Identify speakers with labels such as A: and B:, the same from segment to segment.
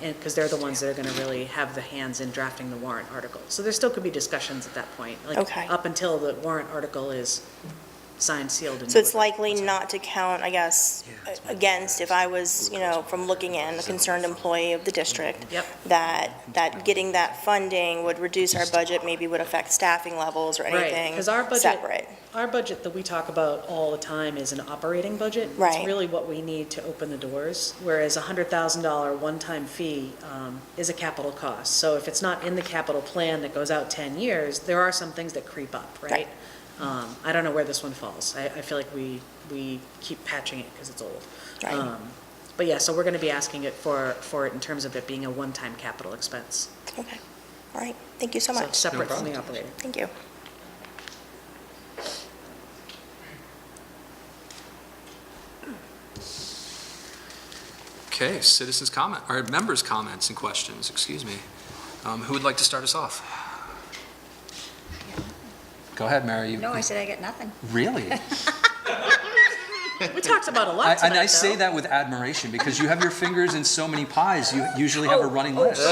A: because they're the ones that are going to really have the hands in drafting the warrant article. So there still could be discussions at that point. like,
B: Okay.
A: Up until the warrant article is signed, sealed, and.
B: So it's
A: delivered.
B: likely not to count, I guess, a- against, if I was, you know, from looking in, a concerned employee of the district,
A: Yep.
B: that, that getting that funding would reduce our budget, maybe would affect staffing levels or
A: Right,
B: anything
A: 'cause our budget-
B: separate.
A: Our budget that we talk about all the time is an operating budget.
B: Right.
A: It's really what we need to open the doors, whereas a hundred thousand dollar one-time fee um, is a capital cost. So if it's not in the capital plan that goes out ten years, there are some things that creep up, right?
B: Right.
A: Um, I don't know where this one falls. I, I feel like we, we keep patching it because it's old.
B: Right.
A: Um, But yeah, so we're going to be asking it for, for it in terms of it being a one-time capital expense.
B: Okay, all right, thank you so
A: So
B: much.
A: Separate from the operating.
B: Thank you.
C: Okay, citizens' comment, or members' comments and questions, excuse me. Um, Who would like to start us off? Go ahead, Mary. you-
D: No, I said I got nothing.
C: Really?
A: We talked about a
C: I-
A: lot tonight,
C: And I say
A: though.
C: that with admiration, because you have your fingers in so many pies, you usually have a running list.
A: You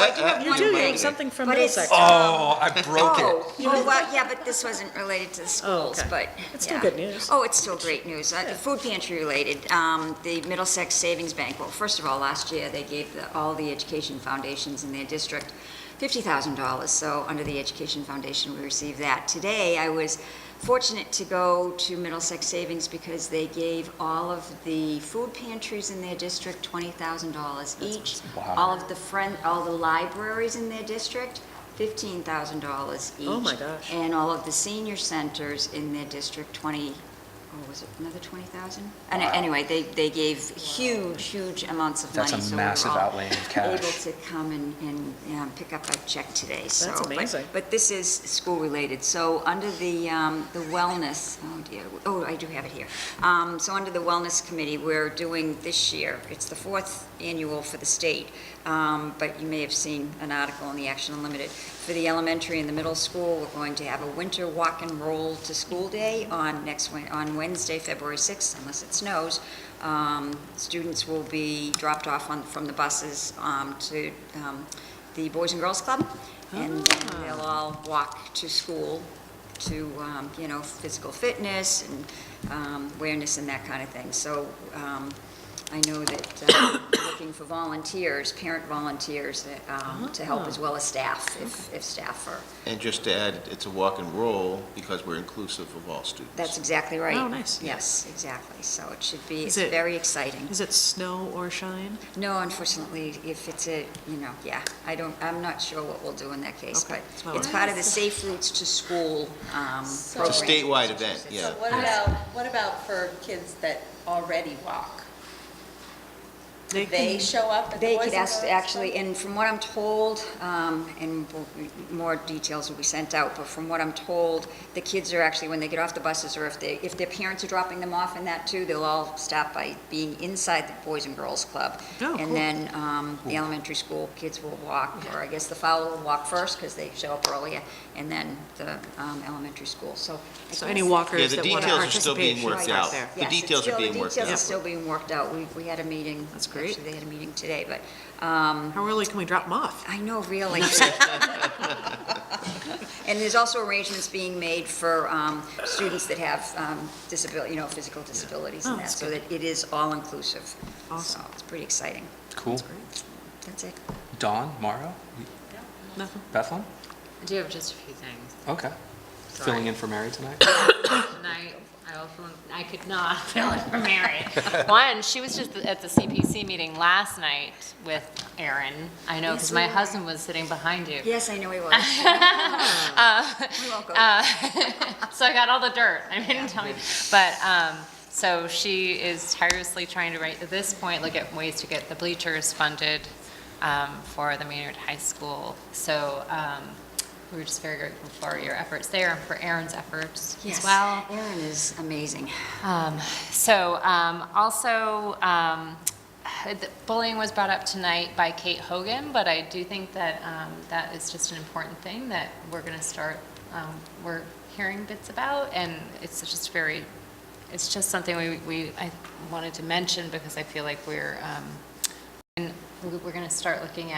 A: do, you have something from
D: But it's-
A: Middlesex.
C: Oh, I broke
D: Oh,
C: it.
D: oh, well, yeah, but this wasn't related to the schools,
A: Oh, okay.
D: but.
A: It's still
D: yeah.
A: good news.
D: Oh, it's still great news. Uh, Food pantry related, um, the Middlesex Savings Bank, well, first of all, last year, they gave the- all the education foundations in their district $50,000, so under the Education Foundation, we received that. Today, I was fortunate to go to Middlesex Savings because they gave all of the food pantries in their district $20,000 each.
C: Wow.
D: All of the friend, all the libraries in their district, $15,000 each.
A: Oh, my gosh.
D: And all of the senior centers in their district, 20, oh, was it another 20,000? And
C: Wow.
D: anyway, they, they gave huge, huge amounts of money.
C: That's a
D: so we were
C: massive
D: all
C: outlaying of cash.
D: Able to come and, and um, pick up a check today, so. but-
A: amazing.
D: But this is school-related, so under the, um, the wellness, oh dear, oh, I do have it here. Um, So under the Wellness Committee, we're doing this year, it's the fourth annual for the state, um, but you may have seen an article in the Action Unlimited. For the elementary and the middle school, we're going to have a winter walk and roll to school day on next, Wed- on Wednesday, February 6th, unless it snows. Um, Students will be dropped off on, from the buses um, to um, the Boys and Girls Club, and
A: Ah.
D: then they'll all walk to school to, um, you know, physical fitness and um, awareness and that kind of thing. So um, I know that uh, looking for volunteers, parent volunteers um, to
A: Ah.
D: help as well as staff, if if staff are,
E: And just to add, it's a walk and roll because we're inclusive of all students.
D: that's exactly right.
A: Oh, nice.
D: Yes, exactly. So it should be,
A: Is
D: it's
A: it-
D: very exciting.
A: Is it snow or shine?
D: No, unfortunately, if it's a, you know, yeah, I don't, I'm not sure what we'll do in that case,
A: Okay,
D: but
A: it's my
D: it's
A: worry.
D: part of the Safe Routes to School um, program.
E: It's a statewide event, yeah.
F: So what about, what about for kids that already walk? They show up at the
D: They
F: Boys
D: could
F: and
D: ask,
F: Girls
D: actually,
F: Club?
D: and from what I'm told, um, and we'll- more details will be sent out, but from what I'm told, the kids are actually, when they get off the buses, or if they, if their parents are dropping them off and that too, they'll all stop by being inside the Boys and Girls Club.
A: Oh, cool.
D: And then um, the elementary school kids will walk, or I guess the Fowler will walk first, because they show up earlier, and then the um, elementary school, so. I
A: So any
D: guess-
E: Yeah,
A: walkers
E: the
A: that want to
E: details are still
A: participate
E: being
A: should
E: worked
A: start
E: out.
A: there.
E: The
D: Yes, it's
E: details
D: still-
E: are being worked
D: The details
E: out.
D: are still being worked out. We, we had a meeting.
A: That's great.
D: Actually, they had a meeting today, but, um,
A: How early can we drop them off?
D: I know, really. And there's also arrangements being made for, um, students that have, um, disability, you know, physical disabilities
A: Oh,
D: and that,
A: that's
D: so that it is all-inclusive. So
A: Awesome.
D: it's pretty exciting.
C: Cool.
D: That's it.
C: Dawn, Mauro,
A: Nothing.
C: Bethlehem?
G: I do have just a few things.
C: Okay. Filling in for Mary tonight?
G: Tonight, I will fill in- I could not fill in for Mary. One, she was just at the CPC meeting last night with Aaron. I know, because
D: Yes,
G: my
D: we were.
G: husband was sitting behind you.
D: Yes, I know he was. We won't go.
G: Uh, so I got all the dirt. I didn't tell you. But, um, so she is tirelessly trying to right, at this point, look at ways to get the bleachers funded, um, for the Maynard High School. So, um, we're just very grateful for your efforts there and for Aaron's efforts as
D: Yes.
G: well.
D: Erin is amazing.
G: Um, So, um, also, um, the bullying was brought up tonight by Kate Hogan, but I do think that um, that is just an important thing that we're going to start, um, we're hearing bits about, and it's just very, it's just something we, we, I wanted to mention because I feel like we're, um, and we're going to start looking at.